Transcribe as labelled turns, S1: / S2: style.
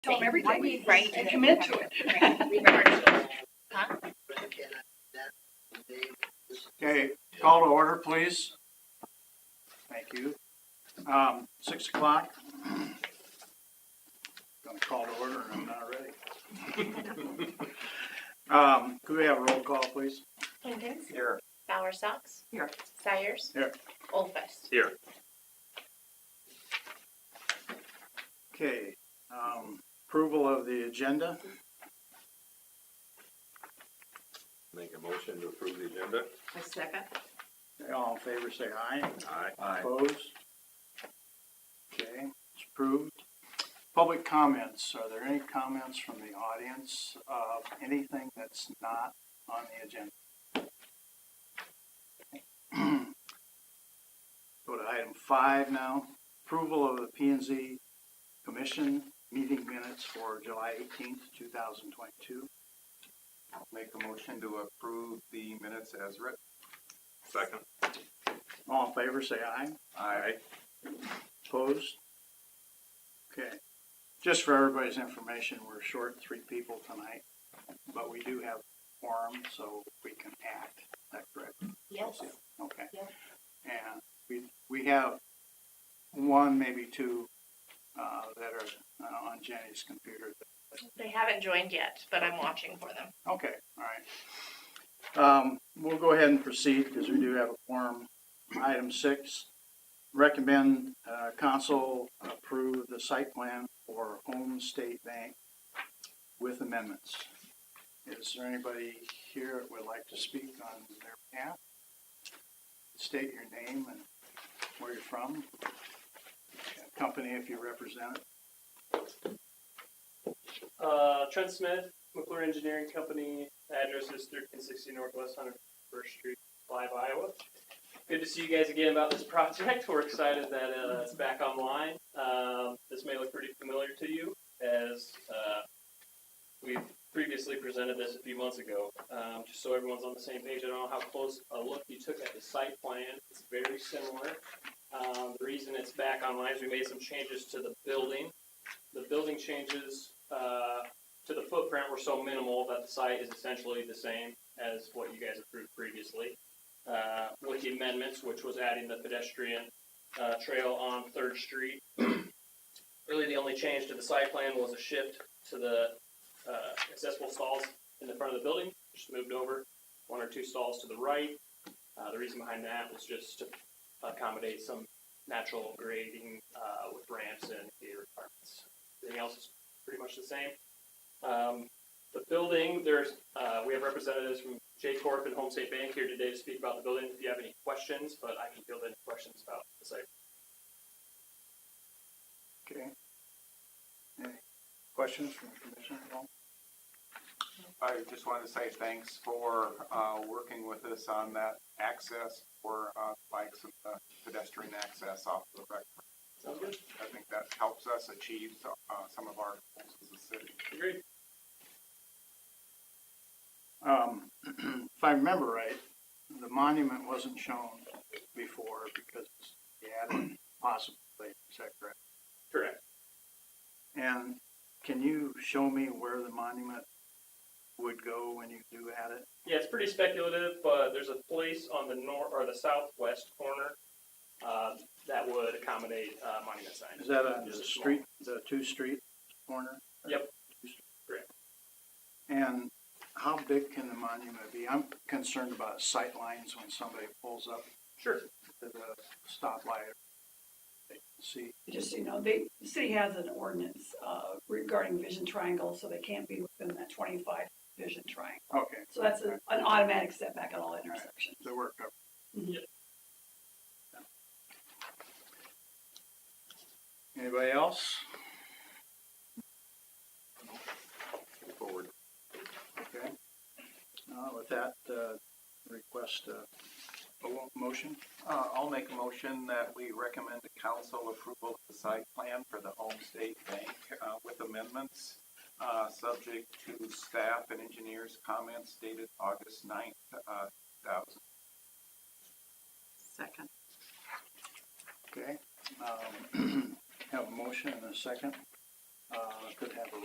S1: Tell them everything,
S2: Right.
S1: and commit to it.
S3: Okay, call to order, please. Thank you. Um, six o'clock. Gonna call to order and I'm not ready. Um, could we have a roll call, please?
S4: Hinton,
S3: Here.
S4: Bauer Sox.
S1: Here.
S4: Sayers.
S3: Here.
S4: Olfest.
S3: Okay, um, approval of the agenda.
S5: Make a motion to approve the agenda.
S1: A second.
S3: All in favor, say aye.
S5: Aye.
S3: Opposed? Okay, it's approved. Public comments, are there any comments from the audience of anything that's not on the agenda? Go to item five now, approval of the P and Z Commission meeting minutes for July eighteenth, two thousand twenty-two.
S6: Make a motion to approve the minutes as written.
S5: Second.
S3: All in favor, say aye.
S5: Aye.
S3: Opposed? Okay. Just for everybody's information, we're short three people tonight, but we do have quorum, so we can act. Is that correct?
S4: Yes.
S3: Okay.
S4: Yeah.
S3: And we, we have one, maybe two, uh, that are uh, on Jenny's computer.
S4: They haven't joined yet, but I'm watching for them.
S3: Okay, all right. Um, we'll go ahead and proceed because we do have a quorum. Item six, recommend, uh, council approve the site plan for Home State Bank with amendments. Is there anybody here that would like to speak on their behalf? State your name and where you're from, company if you represent it.
S7: Uh, Trent Smith, McClure Engineering Company, address is thirteen sixty Northwest Hundred First Street, Live, Iowa. Good to see you guys again about this project. We're excited that uh, it's back online. Um, this may look pretty familiar to you as uh, we previously presented this a few months ago. Um, just so everyone's on the same page, I don't know how close a look you took at the site plan. It's very similar. Um, the reason it's back online is we made some changes to the building the building changes uh, to the footprint were so minimal that the site is essentially the same as what you guys approved previously. Uh, With the amendments, which was adding the pedestrian uh, trail on Third Street. Really, the only change to the site plan was a shift to the uh, accessible stalls in the front of the building, just moved over one or two stalls to the right. Uh, The reason behind that was just to accommodate some natural grading uh, with ramps and the requirements. Everything else is pretty much the same. Um, the building, there's, uh, we have representatives from J Corp and Home State Bank here today to speak about the building. If you have any questions, but I can field any questions about the site.
S3: Okay. Any questions from the commission at all?
S6: I just wanted to say thanks for, uh, working with us on that access for, uh, bikes and the pedestrian access off the rec.
S7: Sounds good.
S6: I think that helps us achieve, uh, some of our goals as a city.
S7: Agreed.
S3: Um, if I remember right, the monument wasn't shown before because he added possibly, is that correct?
S7: Correct.
S3: And can you show me where the monument would go when you do add it?
S7: Yeah, it's pretty speculative, but there's a place on the nor, or the southwest corner, uh, that would accommodate, uh, monument signs.
S3: Is that on the
S7: Just a small-
S3: street, the two street corner?
S7: Yep.
S3: Two street.
S7: Correct.
S3: And how big can the monument be? I'm concerned about sight lines when somebody pulls up
S7: Sure.
S3: to the stoplight. They can see
S1: Just, so you know, they, the city has an ordinance uh, regarding vision triangles, so they can't be within that twenty-five vision triangle.
S3: Okay,
S1: So that's a- an automatic setback at all intersections.
S3: so we're covered.
S1: Mhm.
S3: Anybody else?
S5: Forward.
S3: Okay. Uh, with that, uh, request, uh, a wo- motion,
S6: Uh, I'll make a motion that we recommend to council approval of the site plan for the Home State Bank, uh, with amendments, uh, subject to staff and engineers' comments dated August ninth, uh, thousand
S1: Second.
S3: okay? Um, have a motion and a second. uh, could have a